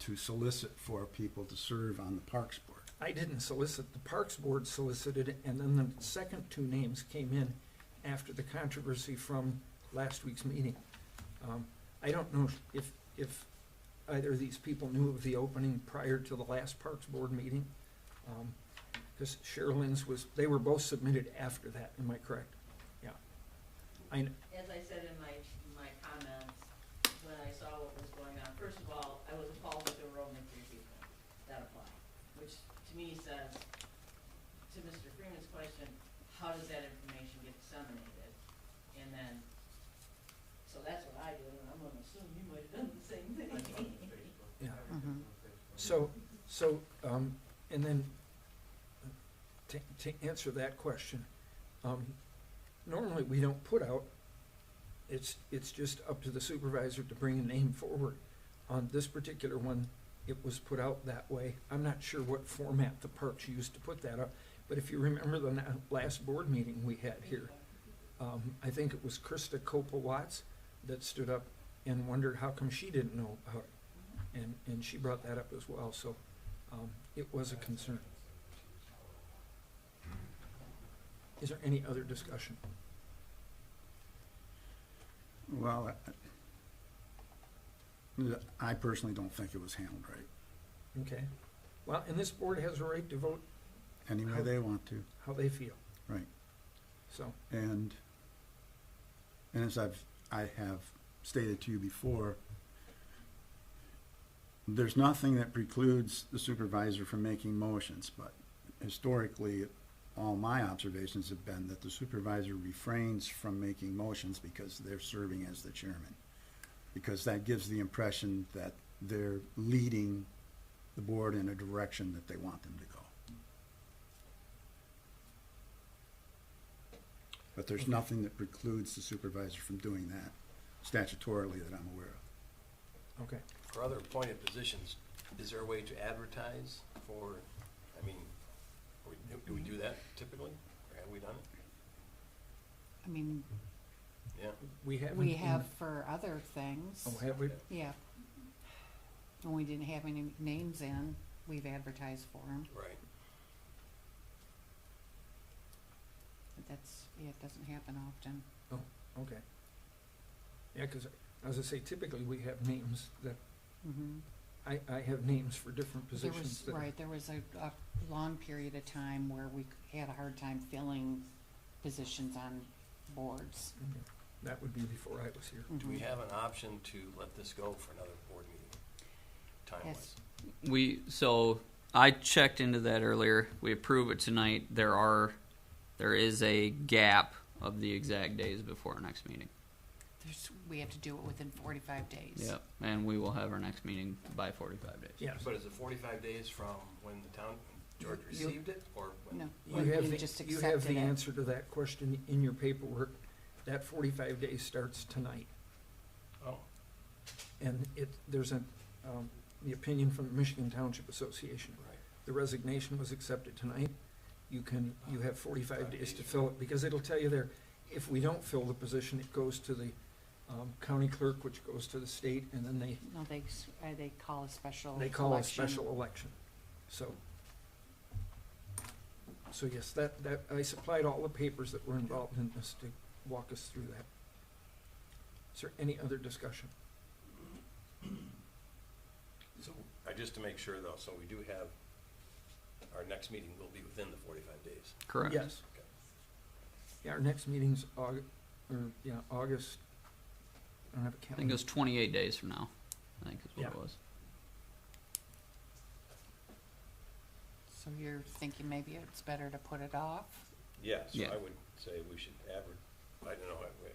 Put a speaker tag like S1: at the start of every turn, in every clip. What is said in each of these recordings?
S1: to solicit for people to serve on the Parks Board.
S2: I didn't solicit, the Parks Board solicited, it, and then the second two names came in after the controversy from last week's meeting. Um, I don't know if, if either of these people knew of the opening prior to the last Parks Board meeting. Because Sherilyn's was, they were both submitted after that, am I correct? Yeah. I, kn-
S3: as I said in my, my comments, when I saw what was going on, first of all, I was appalled that there were only three people that applied, which to me says, to Mr. Freeman's question, how does that information get disseminated? And then, so that's what I did, and I'm gonna assume you might have done the same thing.
S2: Yeah. So, so, um, and then, to, to answer that question, um, normally we don't put out, it's, it's just up to the supervisor to bring a name forward. On this particular one, it was put out that way. I'm not sure what format the parks used to put that up, but if you remember the na- last board meeting we had here, um, I think it was Krista Copel Watts that stood up and wondered how come she didn't know about it. And, and she brought that up as well, so, um, it was a concern. Is there any other discussion?
S1: Well, I- I personally don't think it was handled right,
S2: Okay. Well, and this board has a right to vote
S1: any way they want to.
S2: how they feel.
S1: Right.
S2: So,
S1: And, and as I've, I have stated to you before, there's nothing that precludes the supervisor from making motions, but historically, all my observations have been that the supervisor refrains from making motions because they're serving as the chairman. Because that gives the impression that they're leading the board in a direction that they want them to go. But there's nothing that precludes the supervisor from doing that statutorily that I'm aware of.
S2: okay.
S4: For other appointed positions, is there a way to advertise for, I mean, are we- do we do that typically? Or have we done it?
S5: I mean,
S4: Yeah,
S2: We haven't.
S5: we
S2: in-
S5: have for other things,
S2: Oh, have we?
S5: yeah. When we didn't have any names in, we've advertised for them,
S4: right.
S5: but that's, yeah, it doesn't happen often.
S2: Okay. Yeah, 'cause as I say, typically we have names that,
S5: Mhm.
S2: I, I have names for different
S5: There
S2: Mm-hmm. positions
S5: was,
S2: that.
S5: right, there was a, a long period of time where we c- had a hard time filling positions on boards.
S2: Okay. That would be before I was here.
S4: Do we
S5: Mhm.
S4: have an option to let this go for another board meeting? Time-wise?
S5: Yes.
S6: We, so I checked into that earlier. We approve it tonight. There are, there is a gap of the exact days before our next meeting.
S5: There's, we have to do it within forty-five days.
S6: Yep. And we will have our next meeting by forty-five days.
S2: Yes.
S4: But is it forty-five days from when the town, George
S2: You-
S4: received it, or when?
S5: No,
S2: You have,
S5: you
S2: the-
S5: just
S2: you have
S5: accepted
S2: the
S5: it.
S2: answer to that question in your paperwork. That forty-five days starts tonight.
S4: Oh,
S2: And it, there's a, um, the opinion from the Michigan Township Association.
S4: right.
S2: The resignation was accepted tonight. You can, you have forty-five days to fill it, because it'll tell you there, if we don't fill the position, it goes to the, um, county clerk, which goes to the state, and then they,
S5: No, they, s- uh, they call a special
S2: they call a
S5: Oh, election.
S2: special election. So. So yes, that, that, I supplied all the papers that were involved in this to walk us through that. Is there any other discussion?
S4: So, uh, just to make sure though, so we do have, our next meeting will be within the forty-five days.
S6: Correct.
S2: Yes. Yeah, our next meeting's Aug, or, yeah, August, I don't have a
S6: I
S2: calendar.
S6: think it was twenty-eight days from now. I think is what it
S2: Yeah.
S6: was.
S5: So you're thinking maybe it's better to put it off?
S4: Yeah, so
S6: Yeah.
S4: I would say we should advert, I don't know, I,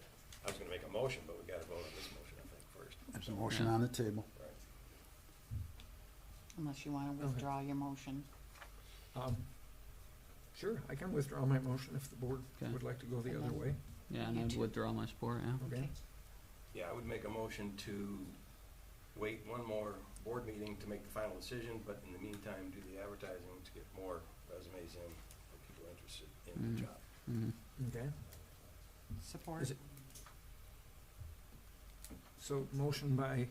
S4: I was gonna make a motion, but we gotta vote on this motion, I think, first,
S1: There's a motion on the table.
S4: right?
S5: Unless you wanna withdraw your motion.
S2: Um, Sure, I can withdraw my motion if the board
S6: Okay.
S2: would like to go the
S5: And
S2: other
S5: then-
S2: way.
S6: Yeah,
S5: You
S6: and I
S5: too.
S6: withdraw my support, yeah.
S2: Okay.
S5: Okay.
S4: Yeah, I would make a motion to wait one more board meeting to make the final decision, but in the meantime, do the advertising to get more resumes in, for people interested in
S6: Mm.
S4: the job.
S6: Mhm.
S2: Okay,
S5: Support?
S2: Is it- so motion by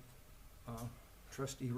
S2: uh, trustee